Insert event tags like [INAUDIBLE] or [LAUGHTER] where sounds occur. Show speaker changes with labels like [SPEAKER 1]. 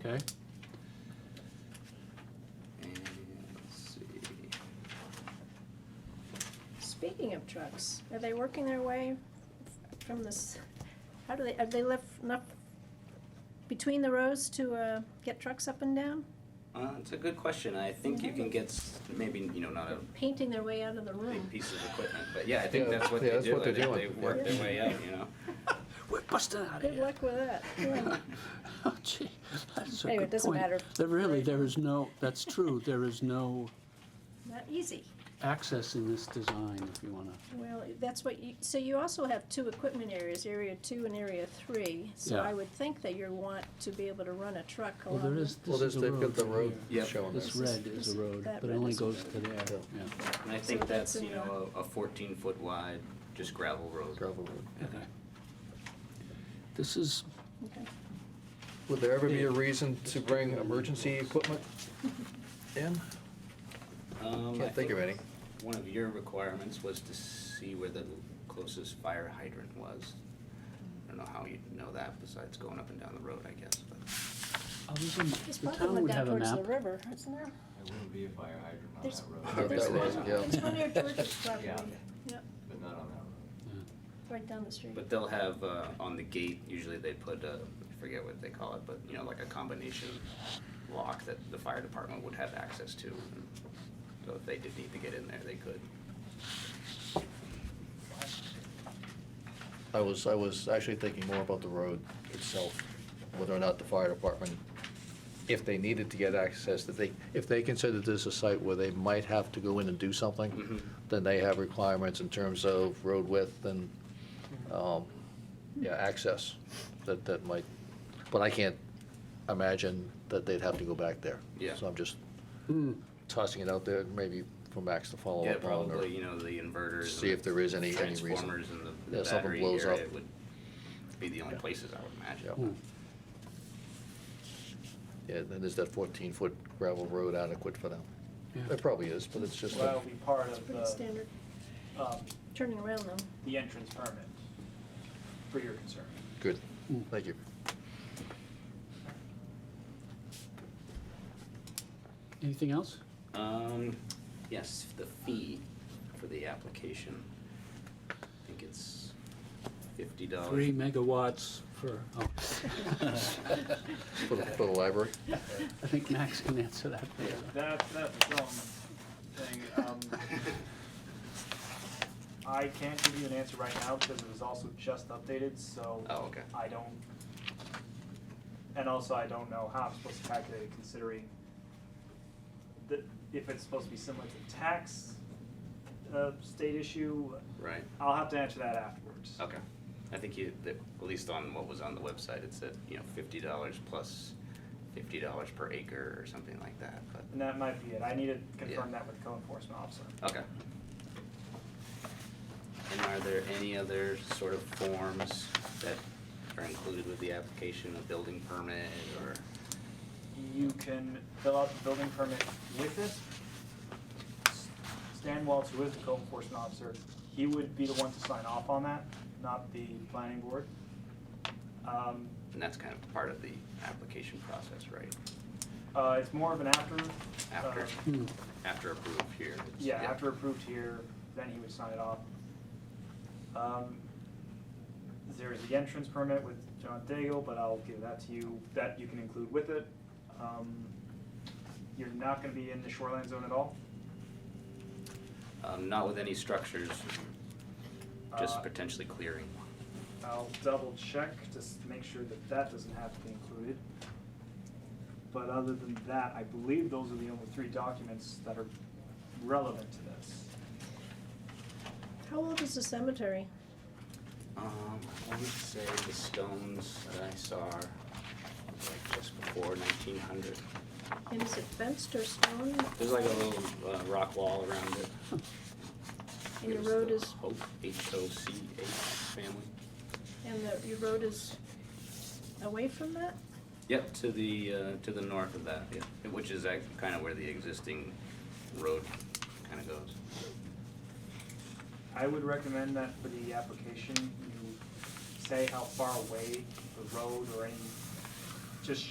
[SPEAKER 1] Okay. And let's see.
[SPEAKER 2] Speaking of trucks, are they working their way from this, how do they, have they left enough between the rows to, uh, get trucks up and down?
[SPEAKER 1] Uh, it's a good question. I think you can get s- maybe you know not a
[SPEAKER 2] Painting their way out of the room.
[SPEAKER 1] big piece of equipment, but yeah, I think
[SPEAKER 3] Yeah,
[SPEAKER 1] that's what
[SPEAKER 3] yeah,
[SPEAKER 1] they
[SPEAKER 3] that's
[SPEAKER 1] do.
[SPEAKER 3] what
[SPEAKER 1] I
[SPEAKER 3] they're
[SPEAKER 1] think
[SPEAKER 3] doing.
[SPEAKER 1] they work their way up. You know. We're busting out of
[SPEAKER 2] Good
[SPEAKER 1] here.
[SPEAKER 2] luck with that. Yeah.
[SPEAKER 4] [LAUGHS] Oh, gee, that's a
[SPEAKER 2] Anyway, it
[SPEAKER 4] good
[SPEAKER 2] doesn't
[SPEAKER 4] point.
[SPEAKER 2] matter.
[SPEAKER 4] There really, there is no, that's true, there is no
[SPEAKER 2] Not easy.
[SPEAKER 4] access in this design, if you wanna.
[SPEAKER 2] Well, that's what you, so you also have two equipment areas, area two and area three. So
[SPEAKER 4] Yeah.
[SPEAKER 2] I would think that you want to be able to run a truck
[SPEAKER 4] Well,
[SPEAKER 2] along.
[SPEAKER 4] there
[SPEAKER 2] the-
[SPEAKER 4] is,
[SPEAKER 3] Well,
[SPEAKER 4] this
[SPEAKER 3] there's,
[SPEAKER 4] is a
[SPEAKER 3] they've got
[SPEAKER 4] road.
[SPEAKER 3] the road
[SPEAKER 1] Yep.
[SPEAKER 3] showing
[SPEAKER 4] This
[SPEAKER 3] us.
[SPEAKER 4] red is a road,
[SPEAKER 2] that
[SPEAKER 4] but it
[SPEAKER 2] red
[SPEAKER 4] only
[SPEAKER 2] is a
[SPEAKER 4] goes to there,
[SPEAKER 3] Yeah.
[SPEAKER 4] yeah.
[SPEAKER 1] And [LAUGHS] I think
[SPEAKER 2] So
[SPEAKER 1] that's
[SPEAKER 2] that's
[SPEAKER 1] you
[SPEAKER 2] in the-
[SPEAKER 1] know a, a 14 foot wide just gravel road.
[SPEAKER 3] gravel road.
[SPEAKER 4] This is,
[SPEAKER 2] Okay.
[SPEAKER 3] Would there ever be a reason to bring emergency equipment in?
[SPEAKER 1] Um, I
[SPEAKER 3] Can't think of any.
[SPEAKER 1] One of your requirements was to see where the closest fire hydrant was. I don't know how you'd know that besides going up and down the road, I guess, but.
[SPEAKER 4] I was in-
[SPEAKER 2] There's
[SPEAKER 4] the
[SPEAKER 2] probably
[SPEAKER 4] town
[SPEAKER 2] one
[SPEAKER 4] would
[SPEAKER 2] down
[SPEAKER 4] have a
[SPEAKER 2] towards
[SPEAKER 4] map.
[SPEAKER 2] the river, isn't there?
[SPEAKER 5] There wouldn't be a fire hydrant on
[SPEAKER 2] There's-
[SPEAKER 3] I
[SPEAKER 5] that
[SPEAKER 3] hope
[SPEAKER 5] road.
[SPEAKER 2] There's
[SPEAKER 3] that was,
[SPEAKER 2] [LAUGHS] one-
[SPEAKER 3] yeah.
[SPEAKER 2] There's one near George's property,
[SPEAKER 5] Yeah.
[SPEAKER 2] yeah,
[SPEAKER 5] But not on that road.
[SPEAKER 2] right down the street.
[SPEAKER 1] But they'll have, uh, on the gate, usually they put, uh, I forget what they call it, but, you know, like a combination lock that the fire department would have access to. So if they did need to get in there, they could.
[SPEAKER 3] I was, I was actually thinking more about the road itself, whether or not the fire department, if they needed to get access, that they, if they considered this a site where they might have to go in and do
[SPEAKER 1] Mm-hmm.
[SPEAKER 3] something, then they have requirements in terms of road width and, um, yeah, access, that, that might, but I can't imagine that they'd have to go back there.
[SPEAKER 1] Yeah.
[SPEAKER 3] So I'm just Hmm. tossing it out there, maybe for Max to follow
[SPEAKER 1] Yeah,
[SPEAKER 3] up on, or
[SPEAKER 1] probably, you know, the inverters.
[SPEAKER 3] see
[SPEAKER 1] and
[SPEAKER 3] if there is any, any reason.
[SPEAKER 1] Transformers and the- the
[SPEAKER 3] Yeah, something
[SPEAKER 1] battery
[SPEAKER 3] blows
[SPEAKER 1] area
[SPEAKER 3] up.
[SPEAKER 1] would be the only places I would imagine.
[SPEAKER 3] Yeah. Yeah, then there's that 14-foot gravel road adequate for them.
[SPEAKER 4] Yeah.
[SPEAKER 3] It probably is, but it's just,
[SPEAKER 6] Well, that'll be part of
[SPEAKER 2] Pretty
[SPEAKER 6] the,
[SPEAKER 2] standard,
[SPEAKER 6] um,
[SPEAKER 2] turning around though.
[SPEAKER 6] the entrance permit for your concern.
[SPEAKER 3] good, thank you.
[SPEAKER 4] Anything else?
[SPEAKER 1] Um, yes, the fee for the application. I think it's fifty dollars.
[SPEAKER 4] Three megawatts for, oh, [LAUGHS]
[SPEAKER 2] [LAUGHS]
[SPEAKER 3] For the, for the library?
[SPEAKER 4] I think Max can answer that. better.
[SPEAKER 6] That, that's some thing, um,
[SPEAKER 1] [LAUGHS]
[SPEAKER 6] I can't give you an answer right now because it was also just updated, so
[SPEAKER 1] Oh, okay.
[SPEAKER 6] I don't, and also I don't know how I'm supposed to calculate it considering that if it's supposed to be similar to tax, uh, state issue,
[SPEAKER 1] Right,
[SPEAKER 6] I'll have to answer that afterwards.
[SPEAKER 1] okay. I think you, that- at least on what was on the website, it said, you know, fifty dollars plus fifty dollars per acre or something like that, but,
[SPEAKER 6] And that might be it. I need to confirm
[SPEAKER 1] Yeah.
[SPEAKER 6] that with the co-enforcement officer.
[SPEAKER 1] okay. And are there any other sort of forms that are included with the application, a building permit or?
[SPEAKER 6] You can fill out the building permit with this. Stan Waltz, who is the code enforcement officer, he would be the one to sign off on that, not the planning board. Um,
[SPEAKER 1] And that's kind of part of the application process, right?
[SPEAKER 6] uh, it's more of an after.
[SPEAKER 1] After,
[SPEAKER 6] uh,
[SPEAKER 4] Hmm.
[SPEAKER 1] after approved here.
[SPEAKER 6] Yeah, after approved here, then he would sign it off. Um, There is the entrance permit with John Daigle, but I'll give that to you, that you can include with it. Um, You're not gonna be in the shoreline zone at all.
[SPEAKER 1] Um, not with any structures,
[SPEAKER 6] Uh,
[SPEAKER 1] just potentially clearing.
[SPEAKER 6] I'll double check, just to make sure that that doesn't have to be included. But other than that, I believe those are the only three documents that are relevant to this.
[SPEAKER 2] How old is the cemetery?
[SPEAKER 1] Um, I would say the stones that I saw are like just before nineteen hundred.
[SPEAKER 2] And is it fenced or stone?
[SPEAKER 1] There's like a little, uh, rock wall around it.
[SPEAKER 2] And
[SPEAKER 1] It
[SPEAKER 2] your
[SPEAKER 1] was
[SPEAKER 2] road
[SPEAKER 1] the
[SPEAKER 2] is,
[SPEAKER 1] Hope, H O C H family.
[SPEAKER 2] and the, your road is away from that?
[SPEAKER 1] Yep, to the, uh, to the north of that, yeah, which is act, kind of where the existing road kind of goes.
[SPEAKER 6] I would recommend that for the application, you say how far away the road or any, just show